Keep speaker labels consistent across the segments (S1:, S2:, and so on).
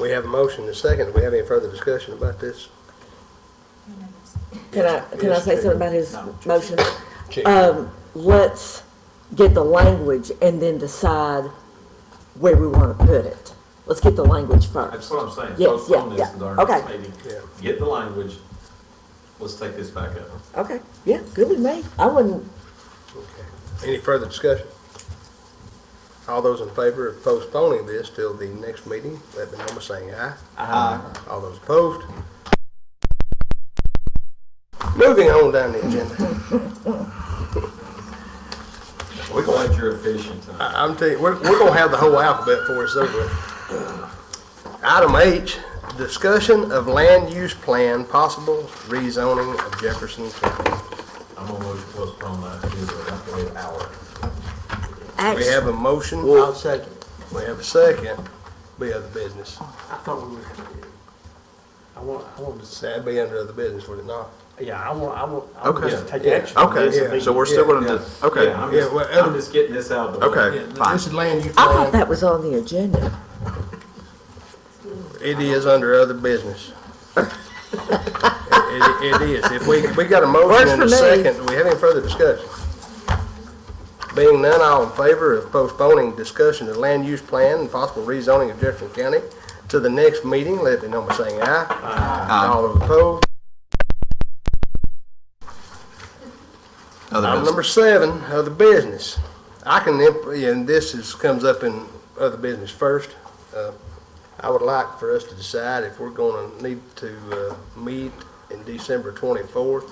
S1: We have a motion and a second. Do we have any further discussion about this?
S2: Can I, can I say something about his motion?
S1: Chief.
S2: Um, let's get the language and then decide where we want to put it. Let's get the language
S3: That's
S2: first.
S3: what I'm saying.
S2: Yes,
S3: Postpone
S2: yeah,
S3: this
S2: yeah.
S3: to our next
S2: Okay.
S3: meeting.
S1: Yeah.
S3: Get the language. Let's take this back up.
S2: Okay, yeah, good with me. I wouldn't,
S1: Okay. Any further discussion? All those in favor of postponing this till the next meeting, let me know by saying aye. Aye. All those opposed? Moving on down the agenda.
S3: We're glad you're efficient tonight.
S1: I- I'm telling you, we're, we're gonna have the whole alphabet before it's over. with. Item H, discussion of land use plan, possible rezoning of Jefferson County.
S3: I'm gonna move to postpone that to the late hour.
S1: We
S2: actually,
S1: have a motion.
S4: I'll second.
S1: We have a second. Be other business.
S4: I thought we were, I want, I want to say,
S1: That'd be under other business, would it not?
S4: yeah, I want, I want, I want
S5: Okay.
S4: us to take
S1: Yeah.
S4: action. on this and
S5: Okay,
S4: be-
S5: so we're still gonna, do- okay,
S3: Yeah, I'm
S1: Yeah,
S3: just,
S1: well, uh,
S3: I'm just getting this out of the way.
S5: okay, fine.
S1: This is land use
S2: I thought
S1: plan.
S2: that was on the agenda.
S1: It is under other business. It, it is. If we, we got a motion
S2: Works
S1: and
S2: for
S1: a
S2: me.
S1: second, do we have any further discussion? Being none, all in favor of postponing discussion of land use plan and possible rezoning of Jefferson County to the next meeting, let me know by saying aye. Aye. All those opposed?
S5: Other
S1: Item
S5: business.
S1: number seven, other business. I can, imp- and this is, comes up in other business first. Uh, I would like for us to decide if we're gonna need to uh, meet in December twenty-fourth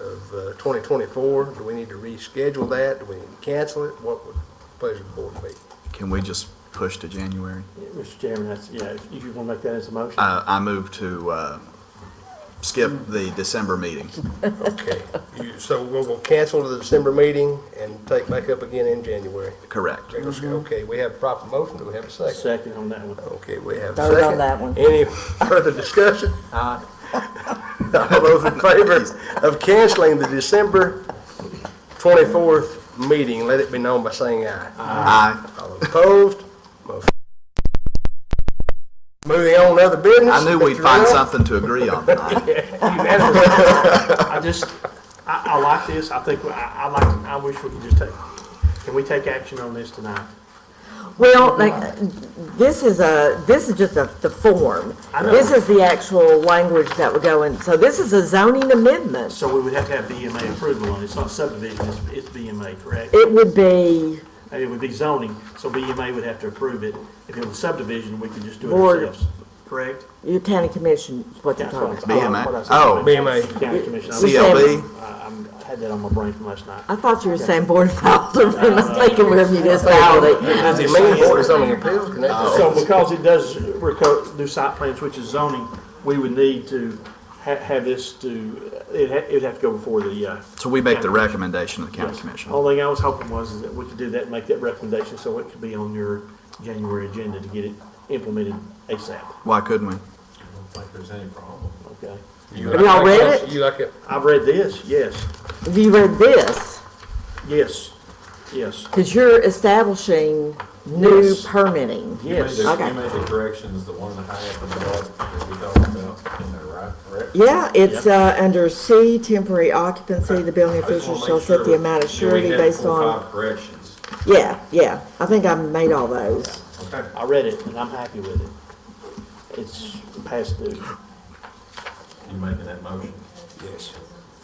S1: of uh, twenty twenty-four. Do we need to reschedule that? Do we need to cancel it? What would the pleasure of the board be?
S5: Can we just push to January?
S4: Yeah, Mr. Chairman, that's, yeah, if if you want to make that as a motion.
S5: Uh, I move to, uh, skip the December meeting.
S1: Okay, you- so we'll, we'll cancel the December meeting and take back up again in January.
S5: Correct.
S1: Okay, we have a proper motion. Do we have a second?
S4: Second on that one.
S1: Okay, we have a
S2: Vote on
S1: second.
S2: that one.
S1: Any further discussion? All those in favor of canceling the December 24th meeting, let it be known by saying aye.
S5: I,
S1: All opposed? Motion- Moving on to other business.
S5: I knew we'd
S1: Mr.
S5: find
S1: Rowell?
S5: something to agree on tonight.
S4: I just, I, I like this, I think, I, I like, I wish we could just take, can we take action on this tonight?
S2: Well, like, this is a, this is just a, the form.
S4: I know.
S2: This is the actual language that would go in. So this is a zoning amendment.
S4: So we would have to have BMA approval on it, it's not subdivision, it's, it's BMA, correct?
S2: It would be
S4: And it would be zoning, so BMA would have to approve it. If it was subdivision, we could just do it
S2: Board.
S4: ourselves, correct?
S2: your county commission, is what you're
S4: That's
S2: talking
S4: what
S2: about.
S4: I-
S5: BMA.
S4: what I said.
S5: Oh.
S1: BMA.
S4: County Commission. I was-
S5: CLB,
S4: I I'm- I had that on my brain from last night.
S2: I thought you were saying board of aldermen. I'm thinking we're a municipality.
S1: Does it mean Board of Zoning Appeals can act?
S4: So because it does reco- do site plans, which is zoning, we would need to ha- have this to, it'd ha- it'd have to go before the, uh.
S5: so we make the
S4: county
S5: recommendation to the county
S4: commission.
S5: commission.
S4: Only thing I was hoping was is that we could do that, and make that recommendation, so it could be on your January agenda to get it implemented ASAP,
S5: Why couldn't we?
S3: I don't think there's any problem.
S4: okay?
S1: You
S2: Have y'all
S1: like
S2: read
S1: it?
S2: it?
S1: You like it?
S4: I've read this, yes,
S2: Have you read this?
S4: yes, yes,
S2: Because you're establishing new
S4: Yes.
S2: permitting.
S3: You made
S4: yes.
S3: the,
S2: Okay.
S3: you made the corrections, the one that I have from the board that we talked about in there, right? Correct?
S2: Yeah, it's, uh, under C, temporary occupancy, the building official shall set the amount of surety based on.
S3: Five corrections.
S2: Yeah, yeah, I think I made all those.
S3: Okay.
S4: I read it, and I'm happy with it. It's past due.
S3: You making that motion?
S1: Yes.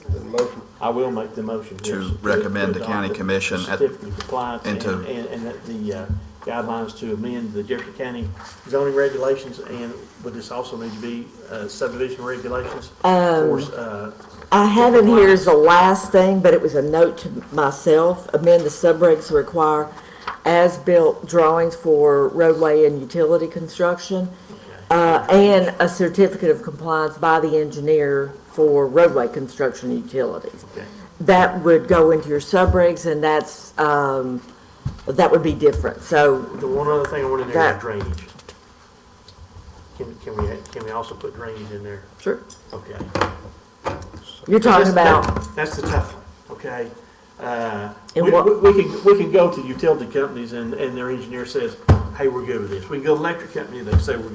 S1: The motion,
S4: I will make the motion.
S5: To
S4: yes.
S5: recommend the county
S4: Adopt the
S5: commission at-
S4: Certificate of compliance
S5: and
S4: and,
S5: to-
S4: and and the uh, guidelines to amend the Jefferson County zoning regulations, and would this also need to be uh, subdivision regulations? For, uh,
S2: I have in here is the last thing, but it was a note to myself, amend the subregs to require as-built drawings for roadway and utility construction, uh, and a certificate of compliance by the engineer for roadway construction and utilities.
S4: Okay.
S2: That would go into your subregs, and that's, um, that would be different, so,
S4: The one other thing I wanted in there
S2: That-
S4: is drainage. Can, can we, can we also put drainage in there?
S2: sure,
S4: Okay.
S2: you're talking
S4: That's- that-
S2: about,
S4: That's the tough one, okay? Uh,
S2: And
S4: We,
S2: what-
S4: we we can, we can go to utility companies and, and their engineer says, hey, we're good with this. We can go to electric company, they say, we're